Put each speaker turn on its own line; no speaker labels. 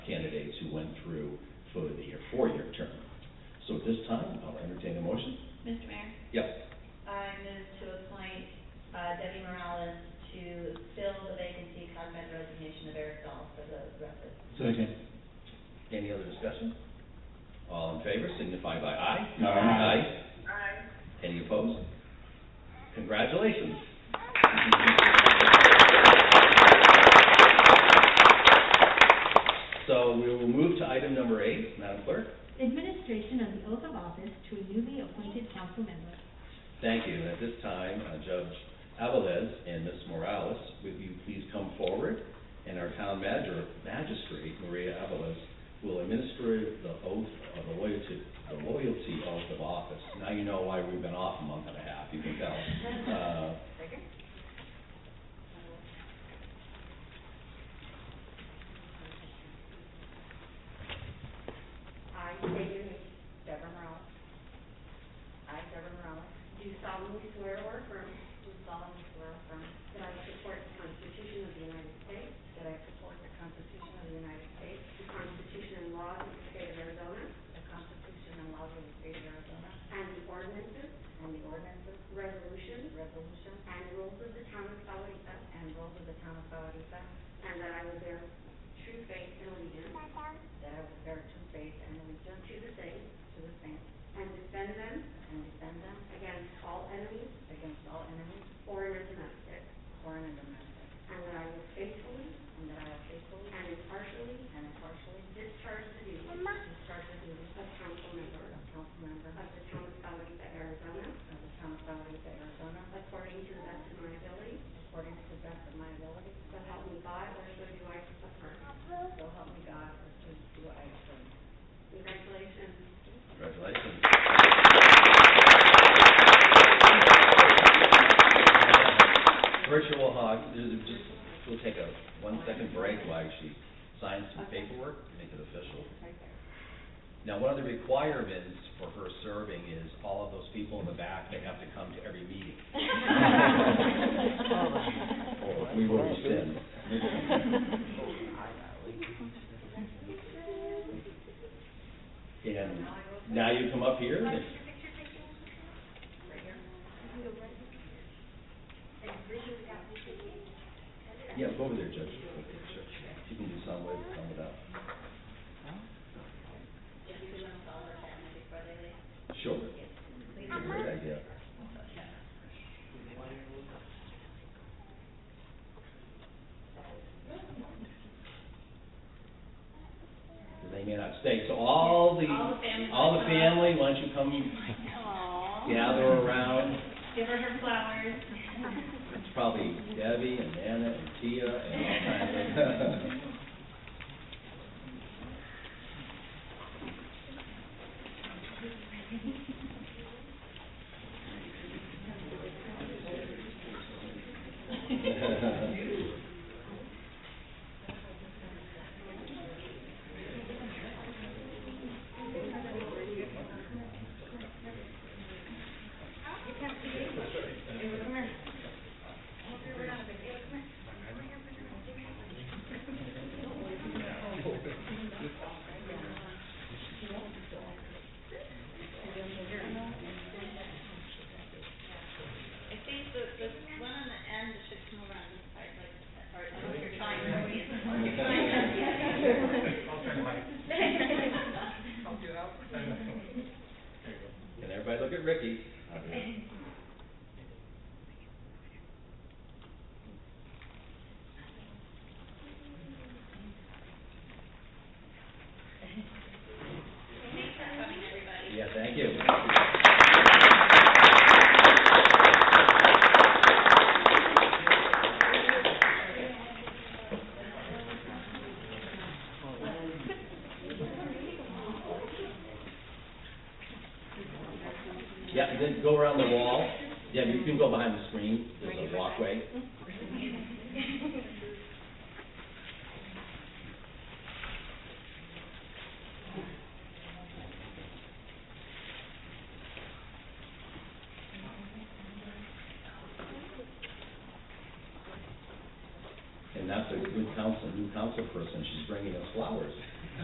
uh,
Any other discussion? All in favor signify by aye.
Aye.
Aye.
Any opposed? Congratulations. So we will move to item number eight, Madam Clerk.
Administration of the oath of office to a newly appointed council member.
Thank you. And at this time, uh, Judge Avalez and Ms. Morales, would you please come forward? And our town manager- magistrate, Maria Avalez, will administer the oath of the loyalty, the loyalty oath of office. Now you know why we've been off a month and a half, you can tell. Uh,
I state your name. Deborah Morales. I, Deborah Morales.
Do solemnly swear or affirm. Do solemnly swear or affirm. That I support the Constitution of the United States.
That I support the Constitution of the United States.
The Constitution and laws of the state of Arizona.
The Constitution and laws of the state of Arizona.
And the ordinances,
And the ordinances,
resolutions,
resolutions,
and rules of the town of Salarita.
and rules of the town of Valparaiso.
And that I will bear true faith and allegiance
That I will bear true faith and allegiance
to the same.
to the same.
And defend them
And defend them
against all enemies,
against all enemies,
foreign and domestic.
foreign and domestic.
And that I will faithfully
And that I will faithfully
and impartially
and impartially
discharge the duties
discharge the duties
of council member
of council member
of the town of Salarita, Arizona.
of the town of Valparaiso, Arizona.
According to the best of my ability,
According to the best of my ability.
so help me God, or so do I suffer.
So help me God, or so do I affirm.
Congratulations.
Congratulations. Virtual hug, There's a- just, we'll take a one-second break while she signs some paperwork, make it official.
Right there.
Now, one of the requirements for her serving is all of those people in the back, they have to come to every meeting. Or we will rescind. And now you come up here, and
Right here.
Yeah, go over there, Judge. Okay, sure. You can do some with, some without. Sure. It's a great idea. They may not stay, so all the,
All the families
all the
come up.
family, why don't you come
Aw.
gather around?
Give her her flowers.
It's probably Debbie and Anna and Tia and all kinds of.
I think the, the one on the end should come around this part, like, or if you're trying to read it. You're trying to-
Can everybody look at Ricky?
Thanks for coming, everybody.
Yeah, thank you. Yeah, and then go around the wall. Yeah, you can go behind the screen, there's a walkway. And that's a good council, new council person, she's bringing us flowers.